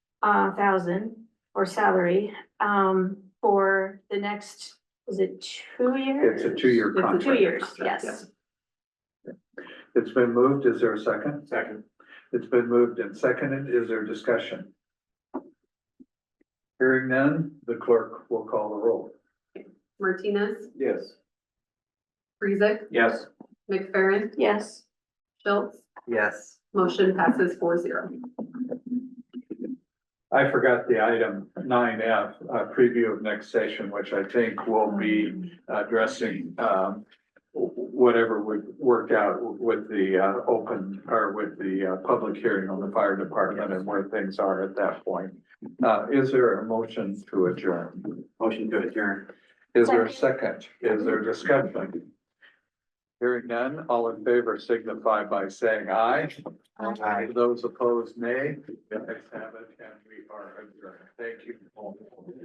uh, thousand or salary, um, for the next, is it two years? It's a two-year It's a contract. Two years, yes. Yes. It's been moved. Is there a second? Second. It's been moved and seconded. Is there discussion? Hearing none, the clerk will call the roll. Martinez, Yes. Friesick, Yes. McFerrin, Yes, Schultz, Yes. motion passes four zero. I forgot the item nine F, uh, preview of next session, which I think will be addressing, um, wh- whatever we work out with the, uh, open, or with the, uh, public hearing on the fire department and where things are at that point. Uh, is there a motion to adjourn? Motion to adjourn. Is there a second? Is there discussion? Hearing none, all in favor signify by saying aye. Aye. Those opposed, nay. The ayes have it, and we are adjourned. Thank you. all.